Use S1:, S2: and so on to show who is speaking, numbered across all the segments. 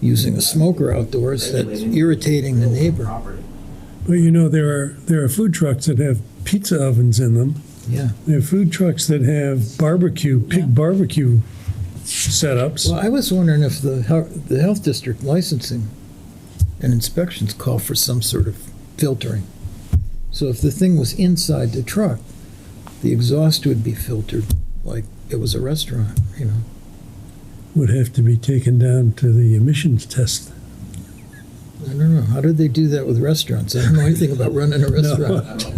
S1: using a smoker outdoors that's irritating the neighbor.
S2: property.
S3: But you know, there are, there are food trucks that have pizza ovens in them.
S1: Yeah.
S3: There are food trucks that have barbecue, pig barbecue setups.
S1: Well, I was wondering if the, hel- the health district licensing and inspections call for some sort of filtering. So if the thing was inside the truck, the exhaust would be filtered like it was a restaurant, you know?
S3: Would have to be taken down to the emissions test.
S1: I don't know, how did they do that with restaurants? I don't know anything about running a restaurant.
S2: I don't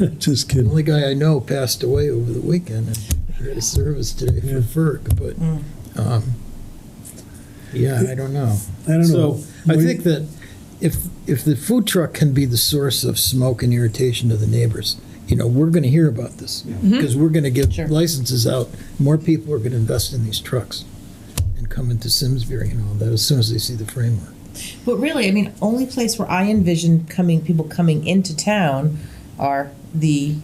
S2: know.
S3: Just
S1: The
S3: kidding.
S1: only guy I know passed away over the weekend, and he had a service today
S3: Yeah.
S1: for FERC, but, um, yeah, I don't know.
S3: I don't know.
S1: So I think that if, if the food truck can be the source of smoke and irritation to the neighbors, you know, we're gonna hear about this. Because we're gonna give
S4: Sure.
S1: licenses out, more people are gonna invest in these trucks and come into Simsbury and all that as soon as they see the framework.
S4: But really, I mean, only place where I envision coming people coming into town are the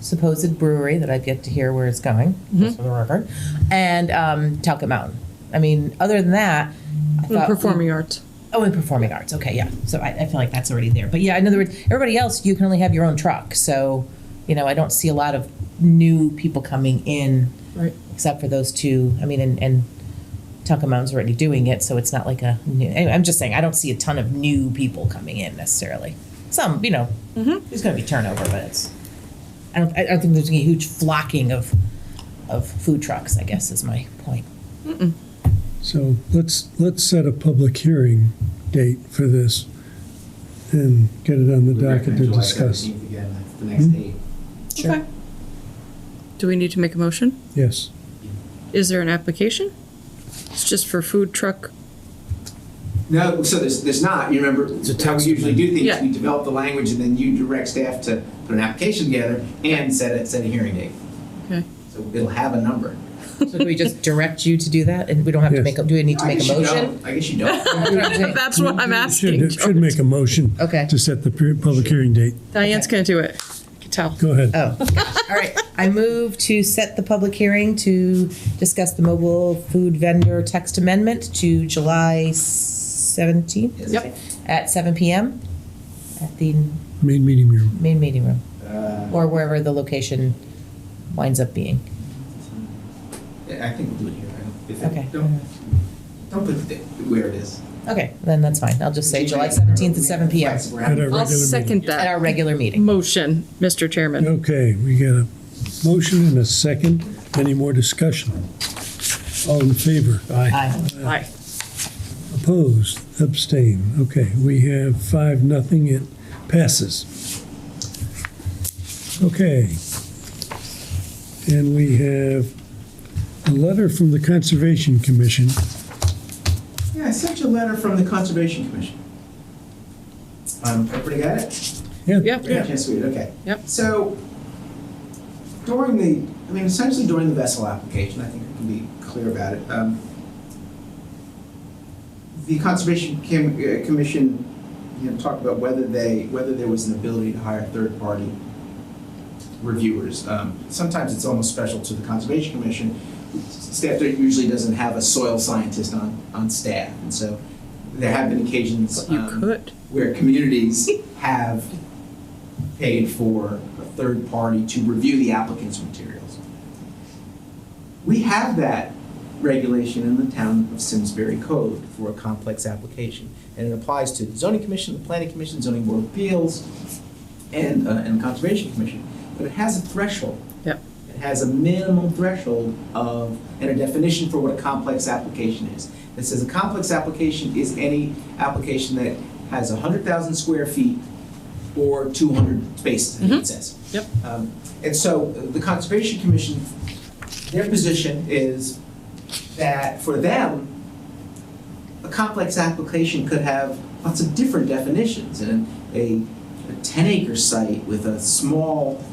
S4: supposed brewery that I've yet to hear where it's going, just for the record, and um, Talcott Mountain. I mean, other than that, I
S5: And
S4: thought
S5: performing arts.
S4: Oh, and performing arts. Okay, yeah. So I, I feel like that's already there. But yeah, in other words, everybody else, you can only have your own truck. So, you know, I don't see a lot of new people coming in,
S5: Right.
S4: except for those two. I mean, and, and Tucka Mountain's already doing it, so it's not like a new. anyway, I'm just saying, I don't see a ton of new people coming in necessarily. Some, you know,
S2: Mm-hmm.
S4: there's going to be turnover, but it's. I don't, I don't think there's going to be a huge flocking of, of food trucks, I guess, is my point.
S3: So let's, let's set a public hearing date for this and get it on the
S2: We
S3: docket
S2: recommend
S3: to
S2: July
S3: discuss.
S2: 17th Again, that's the next date.
S5: Okay. Do we need to make a motion?
S3: Yes.
S5: Is there an application? It's just for food truck.
S2: No, so there's, there's not, you remember, how we usually do things,
S5: Yeah.
S2: we develop the language and then you direct staff to put an application together and set it, set a hearing date.
S5: Okay.
S2: So it'll have a number.
S4: So do we just direct you to do that, and we don't have to
S3: Yes.
S4: make, a- do we need to
S2: I
S4: make a
S2: guess you
S4: motion?
S2: don't. I guess you don't.
S4: That's what I'm saying.
S5: That's what I'm asking.
S3: Should, should make a motion
S4: Okay.
S3: to set the pu- public hearing date.
S5: Diane's gonna do it. I can tell.
S3: Go ahead.
S4: Oh, all right. I move to set the public hearing to discuss the mobile food vendor text amendment to July seventeenth.
S2: Yep.
S4: At seven PM at the
S3: Main meeting room.
S4: main meeting room,
S2: Uh,
S4: or wherever the location winds up being.
S2: I think we'll do it here. I don't- if it-
S4: Okay.
S2: Don't, don't put it where it is.
S4: Okay, then that's fine. I'll just say July seventeenth at seven PM
S2: Flexible.
S3: At our
S5: I'll
S3: regular meeting.
S5: second
S4: at
S5: that
S4: our regular meeting.
S5: motion, Mr. Chairman.
S3: Okay, we got a motion and a second. Any more discussion? All in favor?
S4: Aye.
S5: Aye.
S3: Opposed? Abstain. Okay, we have five, nothing. It passes. Okay. And we have a letter from the Conservation Commission.
S2: Yeah, I sent you a letter from the Conservation Commission. Um, everybody got it?
S5: Yeah.
S2: Yeah, yes, we did, okay.
S5: Yep.
S2: So during the, I mean, essentially during the vessel application, I think we can be clear about it. um, The Conservation Cam- uh, Commission, you know, talked about whether they, whether there was an ability to hire third-party reviewers. Um, Sometimes it's almost special to the Conservation Commission. Staff there usually doesn't have a soil scientist on, on staff, and so there have been occasions.
S5: You
S2: um,
S5: could.
S2: where communities have paid for a third party to review the applicant's materials. We have that regulation in the town of Simsbury Code for a complex application. And it applies to the zoning commission, the planning commission, zoning board of appeals, and, uh, and conservation commission. But it has a threshold.
S5: Yep.
S2: It has a minimum threshold of, and a definition for what a complex application is. It says a complex application is any application that has hundred thousand square feet or two hundred spaces, I think it says.
S5: Yep.
S2: Um, And so uh, the Conservation Commission, their position is that for them, a complex application could have lots of different definitions. And a ten acre site with a small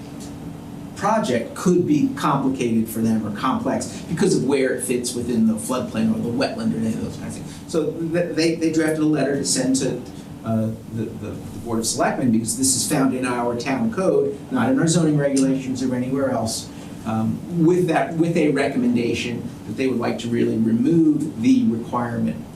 S2: project could be complicated for them or complex because of where it fits within the floodplain or the wetland or any of those kinds of things. So th- they, they drafted a letter to send to uh, the, the the Board of Selectmen because this is found in our town code, not in our zoning regulations or anywhere else. um, With that, with a recommendation that they would like to really remove the requirement